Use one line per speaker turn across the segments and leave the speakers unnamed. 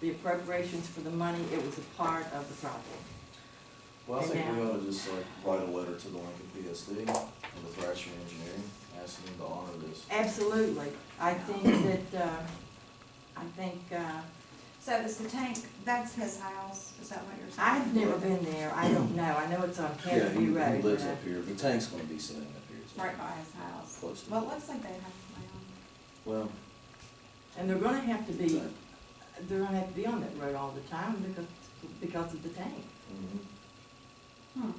the appropriations for the money, it was a part of the problem.
Well, I
And
think we
now-
ought to just like write a letter to the Lincoln PSD and the Thrasher Engineering, asking them to honor this.
Absolutely. I think that, uh, I think, uh,
So is the tank, that's his house, is that what you're saying?
I've never been there, I don't know, I know it's on
Yeah, he-
Canterbury Road.
He lives
but I-
up here, the tank's gonna be sitting up here. so-
Right by his house.
Close to
Well,
it.
it looks like they have my
Well,
uh, And they're gonna have to be,
Right.
they're gonna have to be on that road all the time because, because of the tank.
mhm.
own. Hmm.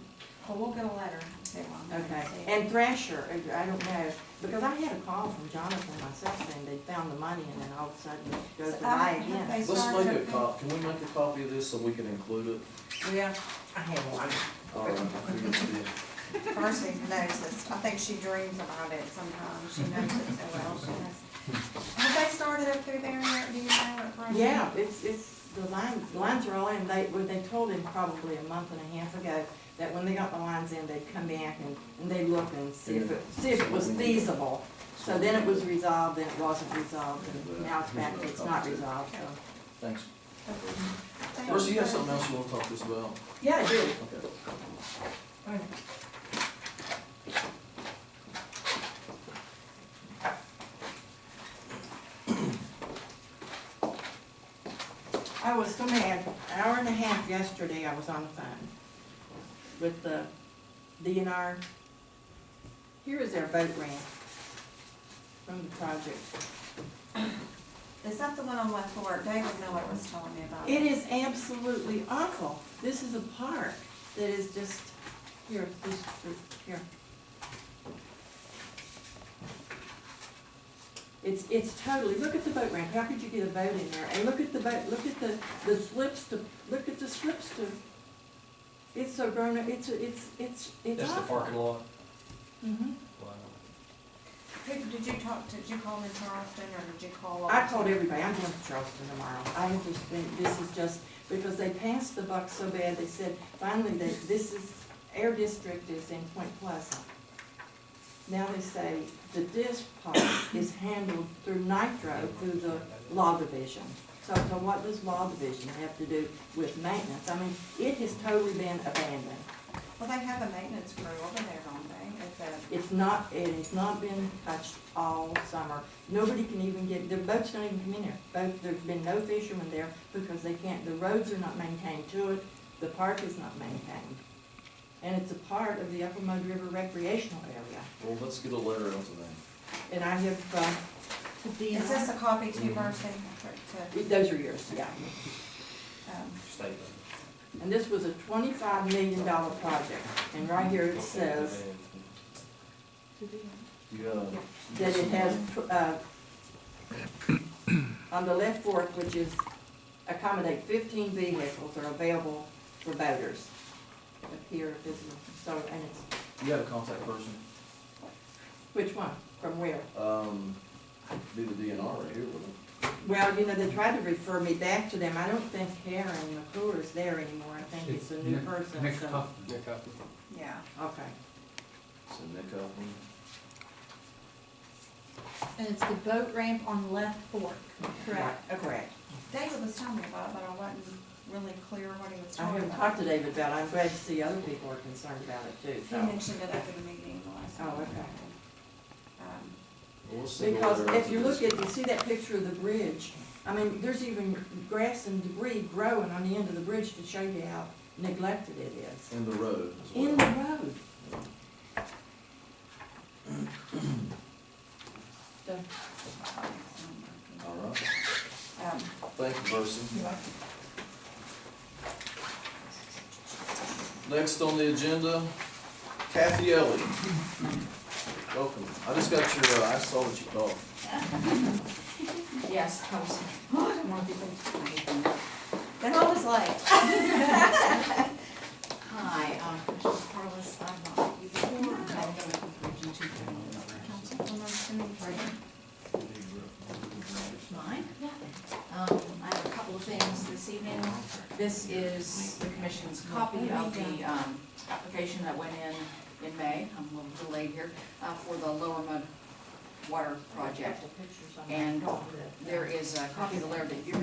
Well, we'll get a letter to him. and
Okay,
see.
and Thrasher, I don't know, because I had a call from Jonathan myself saying they found the money and then all of a sudden it goes
So,
away
um, have
again.
they-
let's
sorry,
make a
okay.
cop, can we make a copy of this so we can include it?
Yeah, I have one.
All right, I figured we did.
Percy knows this, I think she dreams about it sometimes, she knows it so well, she knows. Have they started up through there yet, do you know what project?
Yeah, it's, it's, the lines, the lines are all in, they, well, they told him probably a month and a half ago that when they got the lines in, they'd come back and, and they'd look and see if it, see if it was feasible. So then it was resolved, then it wasn't resolved, and now it's back, it's not resolved, so.
Thanks.
Thank
Percy, you have
Percy.
something else you wanna talk to us about?
Yeah, I do.
Okay.
I was so mad, an hour and a half yesterday, I was on the phone with the DNR. Here is their boat ramp from the project.
Is that the one on West Fork? David Miller was telling me about
It
it.
is absolutely awful. This is a park that is just, here, this, here. It's, it's totally, look at the boat ramp. How could you get a boat in there? And look at the boat, look at the, the slips to, look at the slips to. It's so grown up, it's, it's, it's, it's
That's the
awful.
parking lot?
Mhm.
Wow.
Who, did you talk to, did you call in Charleston or did you call?
I told everybody, I'm going to Charleston tomorrow. I have just been, this is just, because they passed the buck so bad, they said, finally, they, this is, air district is in Point Pleasant. Now they say the disc part is handled through Nitro, through the law division. So, so what does law division have to do with maintenance? I mean, it has totally been abandoned.
Well, they have a maintenance crew over there, don't they? At the,
It's not, it has not been touched all summer. Nobody can even get, the boats don't even come in there. Boat, there's been no fishermen there because they can't, the roads are not maintained to it, the park is not maintained. And it's a part of the Upper Mud River recreational area.
Well, let's get a letter out to them.
And I have, uh,
is this a copy to
Mhm.
Percy? To-
those are yours, yeah.
to, um,
Statement.
And this was a twenty-five million dollar project. And right here it says
You uh, got a-
that it has, uh, on the left fork, which is accommodate fifteen vehicles are available for boaters. Up here, this is, so, and it's,
You got a contact person?
which one, from where?
Um, be the DNR right here, wouldn't it?
Well, you know, they tried to refer me back to them, I don't think Karen McClure is there anymore, I think it's a new
Nick-
person,
Nick
so,
Huffman.
Nick Huffman.
yeah.
okay.
So Nick Huffman,
And it's the boat ramp on Left Fork.
Right, Correct.
David was telling me about it, but I wasn't really clear what he was
I
talking
haven't talked
about.
to David about it, I'm glad to see other people are concerned about it too,
He
so.
mentioned it after the meeting the last.
Oh,
time.
okay.
Um,
Well, let's send a
Because
letter out
if
to
you look
this-
at, you see that picture of the bridge, I mean, there's even grass and debris growing on the end of the bridge to show you how neglected it is.
In the road as well.
In the road. So,
All right,
um,
thank you, Percy. Next on the agenda, Kathy Ellie. Welcome. I just got your, uh, I saw what you called.
Yes, I was, I don't want to be late to my meeting.
They're always late.
Hi, I'm Carlos, I'm not you before, I'm going to region two councilwoman. Pardon? Mine? Um, I have a couple of things this evening. This is the commission's copy of the, um, application that went in in May, I'm a little delayed here, uh, for the Lower Mud Water Project.
the pictures on that.
And there is a copy of the letter that you